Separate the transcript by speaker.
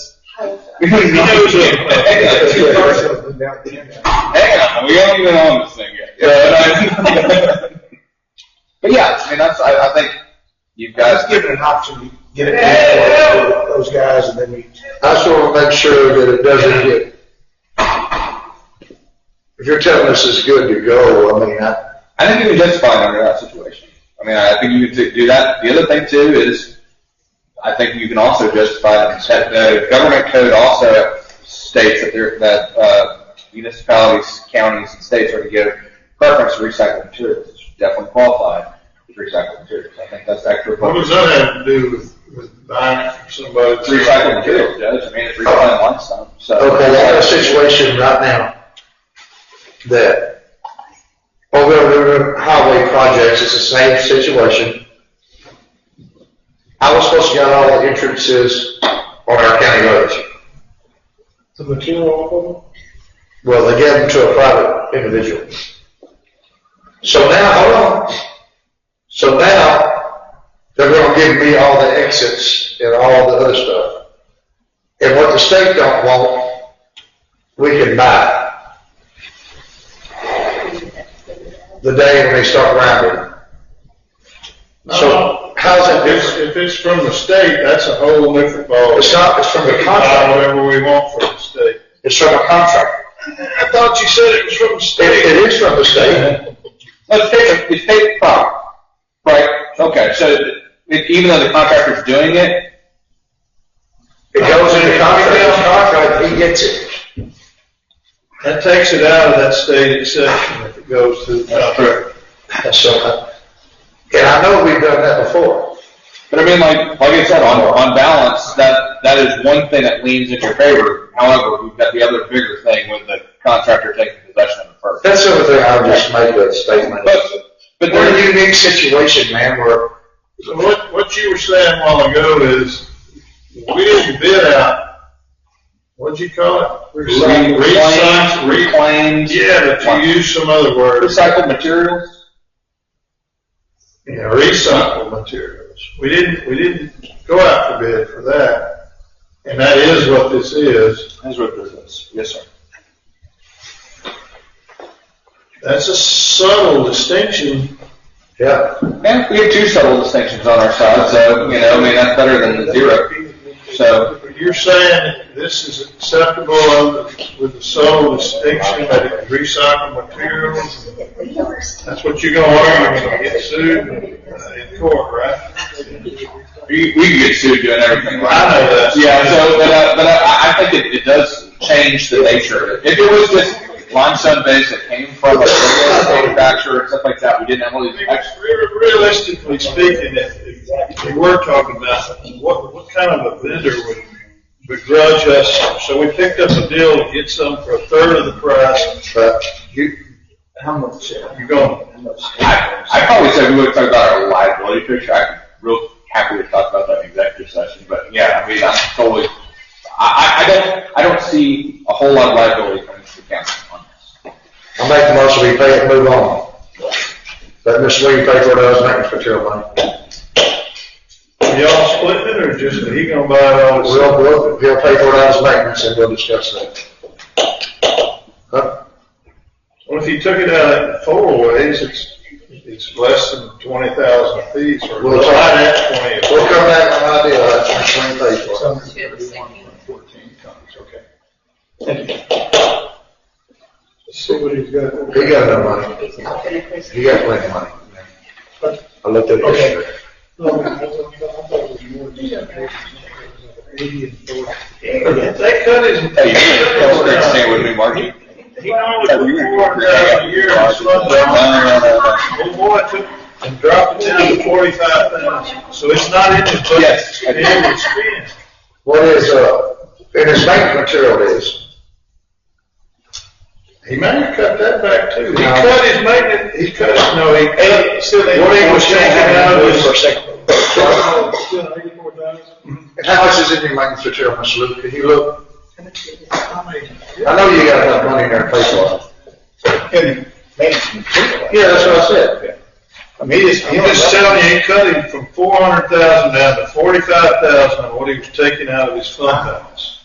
Speaker 1: He knows
Speaker 2: Two
Speaker 1: it.
Speaker 2: commercials and now the internet.
Speaker 1: Hang on, we haven't even on this thing yet. You know what I mean? but yeah, I mean, that's, I, I think you've
Speaker 2: Let's
Speaker 1: got.
Speaker 2: give it an option, to get it
Speaker 1: Yeah.
Speaker 2: to those guys and then we.
Speaker 3: I just want to make sure that it doesn't get, if you're telling us it's good to go, I mean, I,
Speaker 1: I think you can justify it under that situation. I mean, I think you could do that. The other thing too is, I think you can also justify it. in set- The government code also states that there, that, uh, municipalities, counties, and states are to give preference to recycled materials. It's definitely qualified with recycled materials. I think that's extra.
Speaker 4: What does that have to do with, with buying it from somebody?
Speaker 1: It's recycled materials, Judge. I mean, it's recycled limestone, so.
Speaker 3: okay, I got a situation right now that Old River Highway projects is the same situation. I was supposed to get all the entrances on our county roads.
Speaker 2: The material off
Speaker 3: Well, they gave them to a private individual. So now, hold on. So now, they're gonna give me all the exits and all the other stuff. And what the state don't want, we can buy. The day when they start rounding. So, how's that
Speaker 4: If it's,
Speaker 3: different?
Speaker 4: if it's from the state, that's a whole different ball.
Speaker 3: It's not, it's from
Speaker 4: We
Speaker 3: the
Speaker 4: can buy
Speaker 3: contract,
Speaker 4: whatever we want from the state.
Speaker 3: it's from a contract.
Speaker 4: I thought you said it was from the
Speaker 3: It, it is from the state.
Speaker 1: Let's take a, Oh, it's state property, right? Okay, so it, even though the contractor's doing it,
Speaker 3: It goes in the contract, contract, he gets it.
Speaker 4: That takes it out of that state exception if it goes through the
Speaker 1: uh,
Speaker 4: contract.
Speaker 3: And so, uh, and I know we've done that before.
Speaker 1: but I mean, like, like I said, on, on balance, that, that is one thing that leans in your favor. However, we've got the other bigger thing with the contractor taking possession of the first.
Speaker 3: That's over there, I'll just make a statement.
Speaker 1: But, but
Speaker 3: We're
Speaker 1: there,
Speaker 3: in a unique situation, man, where
Speaker 4: So what, what you were saying a while ago is, we didn't bid out, what'd you call it?
Speaker 1: Recycled-
Speaker 4: Recycled-
Speaker 1: reclaimed-
Speaker 4: Yeah, but you used some other word,
Speaker 1: recycled materials,
Speaker 4: Yeah, recycled materials. We didn't, we didn't go out for bid for that, and that is what this is.
Speaker 1: that's what this is. Yes, sir.
Speaker 4: That's a subtle distinction.
Speaker 3: yeah,
Speaker 1: And we have two subtle distinctions on our side, so, you know, I mean, that's better than the zero. So,
Speaker 4: You're saying this is acceptable under- with the subtle distinction that it's recycled materials That's what you're gonna learn, you're gonna get sued uh, in court, right?
Speaker 1: we, we can get sued doing everything right.
Speaker 4: I know that.
Speaker 1: Yeah, so, but, uh, but I, I think it, it does change the nature of it. If it was just limestone base that came from a local manufacturer and stuff like that, we didn't have all
Speaker 4: I
Speaker 1: these
Speaker 4: mean,
Speaker 1: extra.
Speaker 4: re- Realistically speaking, if, if we were talking about, what, what kind of a vendor would begrudge us? So we picked up a deal to get some for a third of the price,
Speaker 3: but
Speaker 4: you,
Speaker 2: How much, uh,
Speaker 4: you're gonna,
Speaker 2: how much?
Speaker 1: I, I probably said we would talk about our liability picture. I'm real happy to talk about that in executive session, but yeah, I mean, I'm totally, I, I, I don't, I don't see a whole lot of liability coming to the county on this.
Speaker 3: I make the most we pay it, move on. Let Miss Lee pay for those maintenance material money.
Speaker 4: y'all splitting it or just, he gonna buy it all?
Speaker 3: We'll, we'll, he'll pay for those maintenance and we'll discuss that. Huh?
Speaker 4: Well, if you took it out in four ways, it's, it's less than twenty thousand a piece or
Speaker 3: Well, it's-
Speaker 4: right at twenty. a
Speaker 3: We'll come back with an idea, that's what we pay for.
Speaker 2: Some thirty-one point fourteen tons, okay. Let's see what he's got.
Speaker 3: He got no money, he got plenty of money. I looked at it yesterday.
Speaker 2: No, I thought- I thought it was more than that. Eighty and forty.
Speaker 4: If they cut his,
Speaker 1: Hey, you know, that's great to say with me, Margie.
Speaker 4: he only
Speaker 1: Hey, you
Speaker 4: put
Speaker 1: know,
Speaker 4: four hundred thousand a year in his
Speaker 1: No,
Speaker 4: fund balance.
Speaker 1: no, no, no.
Speaker 4: Old boy took and dropped it down to forty-five thousand, so it's not in his budget.
Speaker 1: Yes.
Speaker 4: It would spend.
Speaker 3: What is, uh, and his maintenance material is?
Speaker 4: He may have cut that back too. He
Speaker 3: No.
Speaker 4: cut his maintenance, he cut, no, he cut, still,
Speaker 3: What
Speaker 4: what he was taking out of his.
Speaker 3: for a second?
Speaker 2: Still eighty-four thousand?
Speaker 3: And how much is in your maintenance material, Mr. Luke? Can you look?
Speaker 2: How many?
Speaker 3: I know you got enough money in there to pay for it. Yeah, that's what I said.
Speaker 4: I mean, he's, I'm just telling you, he cut him from four hundred thousand down to forty-five thousand on what he was taking out of his fund balance.